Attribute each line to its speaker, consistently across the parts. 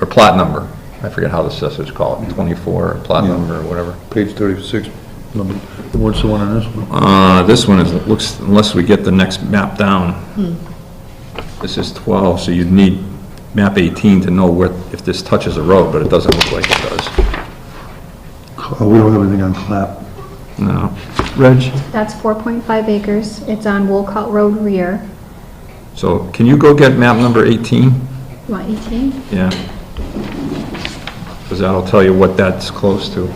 Speaker 1: or plot number. I forget how the assessors call it, 24, plot
Speaker 2: Yeah.
Speaker 1: number, or whatever.
Speaker 2: Page 36, number, what's the one on this one?
Speaker 1: Uh, this one is, it looks, unless we get the next map down, this is 12, so you'd need map 18 to know where, if this touches a road, but it doesn't look like it does.
Speaker 2: Oh, we don't have anything on clap.
Speaker 1: No.
Speaker 2: Reg?
Speaker 3: That's 4.5 acres. It's on Wolcott Road rear.
Speaker 1: So can you go get map number 18?
Speaker 3: You want 18?
Speaker 1: Yeah. Because that'll tell you what that's close to.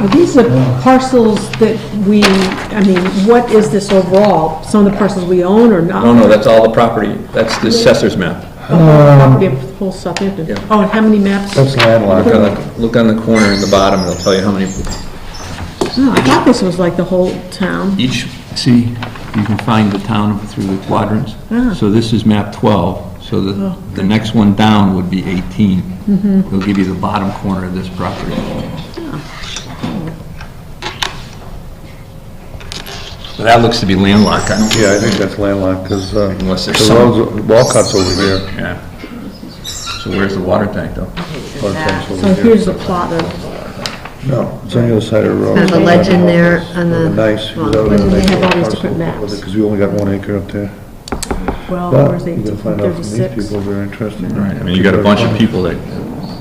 Speaker 4: Are these the parcels that we, I mean, what is this overall? Some of the parcels we own or not?
Speaker 1: Oh, No, no, that's all the property, that's the assessor's map.
Speaker 4: Property of the whole Southampton.
Speaker 1: Yeah.
Speaker 4: Oh, and how many maps?
Speaker 2: That's landlocked.
Speaker 1: Look on the, look on the corner in the bottom, it'll tell you how many,
Speaker 4: No, Oh, I thought this was like the whole town.
Speaker 1: each, see, you can find the town through the quadrants.
Speaker 4: Ah.
Speaker 1: So this is map 12, so the, the next one down would be 18. It'll give you the bottom corner of this property. But that looks to be landlocked, I don't,
Speaker 2: Yeah, I think that's landlocked, because the
Speaker 1: unless there's some...
Speaker 2: roads, Walcott's over here,
Speaker 1: Yeah. So where's the water tank, though?
Speaker 2: Walcott's
Speaker 4: So
Speaker 2: over here.
Speaker 4: here's the plot of,
Speaker 2: No, it's on the other side of the road.
Speaker 5: There's a legend there on the-
Speaker 2: Nice.
Speaker 5: well,
Speaker 4: they have all these different maps.
Speaker 2: Because we only got one acre up there.
Speaker 4: well,
Speaker 2: But
Speaker 4: where's
Speaker 2: you gotta
Speaker 4: 18,
Speaker 2: find out from these
Speaker 4: 36?
Speaker 2: people if they're interested.
Speaker 1: Right, I mean, you got a bunch of people that,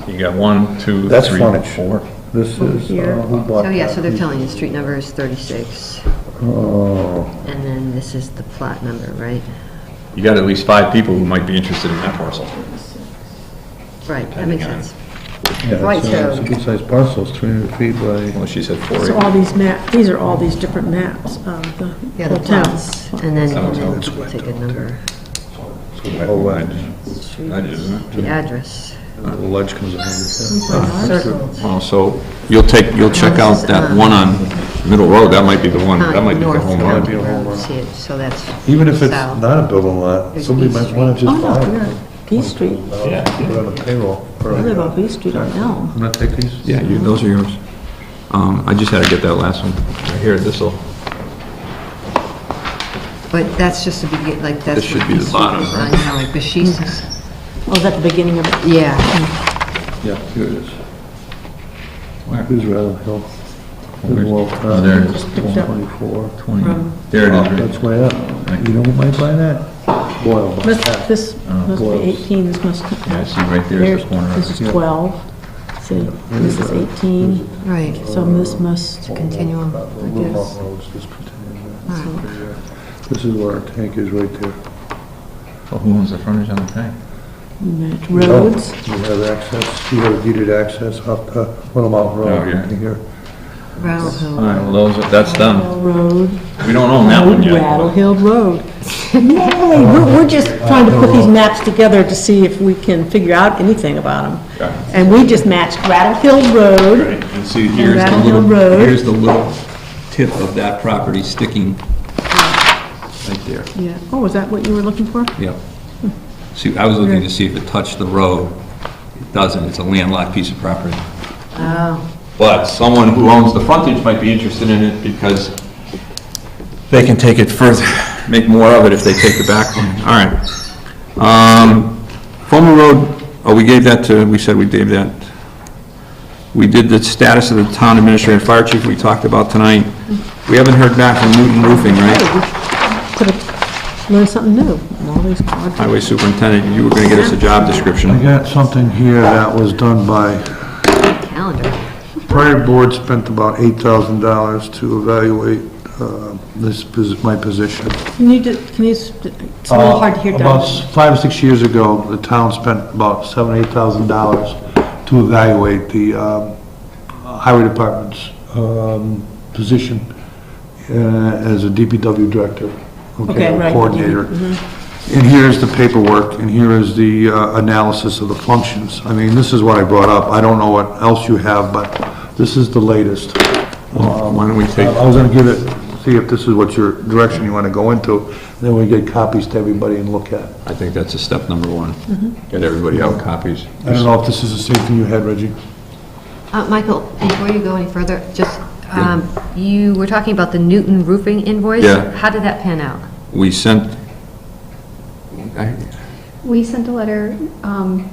Speaker 1: you got one, two,
Speaker 2: That's
Speaker 1: three,
Speaker 2: frontage.
Speaker 1: four.
Speaker 2: This is,
Speaker 4: Here.
Speaker 2: uh, who bought
Speaker 5: So, Oh, yeah, so they're
Speaker 2: that?
Speaker 5: telling you, street number is 36,
Speaker 2: Oh,
Speaker 5: and then this is the plot number, right?
Speaker 1: You got at least five people who might be interested in that parcel.
Speaker 5: Right, that makes sense.
Speaker 2: yeah,
Speaker 5: Right,
Speaker 2: it's a- it's a
Speaker 5: so-
Speaker 2: good-sized parcel, it's 300 feet by,
Speaker 1: Well, she said four.
Speaker 4: So all these map, these are all these different maps of the
Speaker 5: Yeah, the
Speaker 4: whole town. Oh,
Speaker 5: plots, and then
Speaker 1: Sounds
Speaker 5: and then
Speaker 1: it's
Speaker 5: take a number,
Speaker 2: oh, right,
Speaker 5: the address.
Speaker 2: the ledge comes over here.
Speaker 5: Circled.
Speaker 1: Well, so you'll take, you'll check out that one on Middle Road, that might be the one, that might be the
Speaker 5: North
Speaker 1: home
Speaker 5: Road.
Speaker 1: run.
Speaker 5: See it, so that's.
Speaker 2: Even if it's
Speaker 5: south.
Speaker 2: not a building lot,
Speaker 5: There's
Speaker 2: somebody
Speaker 5: East
Speaker 2: might want to
Speaker 4: Oh,
Speaker 2: just
Speaker 4: no,
Speaker 2: buy
Speaker 4: we're
Speaker 2: it.
Speaker 4: on B Street.
Speaker 1: Yeah.
Speaker 2: Put it on the payroll. or-
Speaker 4: I live on B Street on Elm.
Speaker 2: I'm gonna take these.
Speaker 1: Yeah, you, those are yours. Um, I just had to get that last one. Right Here, this'll,
Speaker 5: But that's just the begin, like, that's.
Speaker 1: This should
Speaker 5: what
Speaker 1: be the
Speaker 5: East Street
Speaker 1: bottom,
Speaker 5: is
Speaker 1: right?
Speaker 5: on, You know, like, but she's,
Speaker 4: Oh, is that the beginning of it?
Speaker 5: yeah,
Speaker 2: Yeah, here it is. Who's Rattle Hill?
Speaker 1: Where's- oh, there it is.
Speaker 4: Picked up.
Speaker 2: 24.
Speaker 1: twenty, there
Speaker 2: Oh,
Speaker 1: it is.
Speaker 2: That's way up. You know who might buy that? Boyle. bought
Speaker 4: Must-
Speaker 2: that.
Speaker 4: This must be 18, this must.
Speaker 1: Oh, Yeah, see, right there is the corner of
Speaker 4: This
Speaker 1: it.
Speaker 4: is 12, see, this is 18,
Speaker 5: right,
Speaker 4: so this must,
Speaker 5: continuum,
Speaker 2: The
Speaker 5: I
Speaker 2: Little
Speaker 5: guess.
Speaker 2: Mountain Road's just continuing there. This is where our tank is right there.
Speaker 1: Well, who owns the frontage on the tank?
Speaker 4: match roads,
Speaker 2: You have access, you have deeded access up to Little Mountain
Speaker 1: Oh,
Speaker 2: Road
Speaker 1: yeah.
Speaker 2: right here.
Speaker 5: Rattle
Speaker 1: All
Speaker 5: Hill.
Speaker 1: right, well, those, that's done.
Speaker 4: road,
Speaker 1: We don't own that one yet.
Speaker 4: Rattle Hill Road. Yay, we're, we're just trying to put these maps together to see if we can figure out anything about
Speaker 1: Okay.
Speaker 4: them. And we just matched Rattle Hill Road,
Speaker 1: Right, and see, here's the
Speaker 4: Rattle Hill
Speaker 1: little,
Speaker 4: Road.
Speaker 1: here's the little tip of that property sticking right there.
Speaker 4: yeah, oh, is that what you were looking for?
Speaker 1: Yep. See, I was looking to see if it touched the road. It doesn't, it's a landlocked piece of property. But someone who owns the frontage might be interested in it because they can take it further, make more of it if they take the back one. All right. Um, Fulmer Road, oh, we gave that to, we said we gave that. We did the status of the town administrator and fire chief we talked about tonight. We haven't heard back from Newton Roofing, right?
Speaker 4: Could have learned something new, and all these odd
Speaker 1: Highway superintendent, you were going to get us a job description.
Speaker 2: I got something here that was done by
Speaker 5: Calendar.
Speaker 2: Prior board spent about eight thousand dollars to evaluate, uh, this, posi- my position.
Speaker 4: Can you, do- can you, s- it's a little hard to hear,
Speaker 2: Uh,
Speaker 4: Doug.
Speaker 2: About s- five, or six years ago, the town spent about seven, eight thousand dollars to evaluate the, um, highway department's, um, position uh, as a DPW director.
Speaker 4: Okay,
Speaker 2: or
Speaker 4: right.
Speaker 2: Coordinator.
Speaker 4: mm-hmm.
Speaker 2: And here's the paperwork, and here is the uh, analysis of the functions. I mean, this is what I brought up. I don't know what else you have, but this is the latest. Uh,
Speaker 1: Well, Why don't we take,
Speaker 2: I was gonna give it, see if this is what your direction you wanna go into, then we get copies to everybody and look at.
Speaker 1: I think that's a step number one. Get everybody out copies.
Speaker 2: I don't know if this is the same thing you had, Reggie?
Speaker 5: Uh, Michael, before you go any further, just, um, you were talking about the Newton roofing invoice?
Speaker 1: Yeah.
Speaker 5: How did that pan out?
Speaker 1: We sent, I-
Speaker 3: We sent a letter um,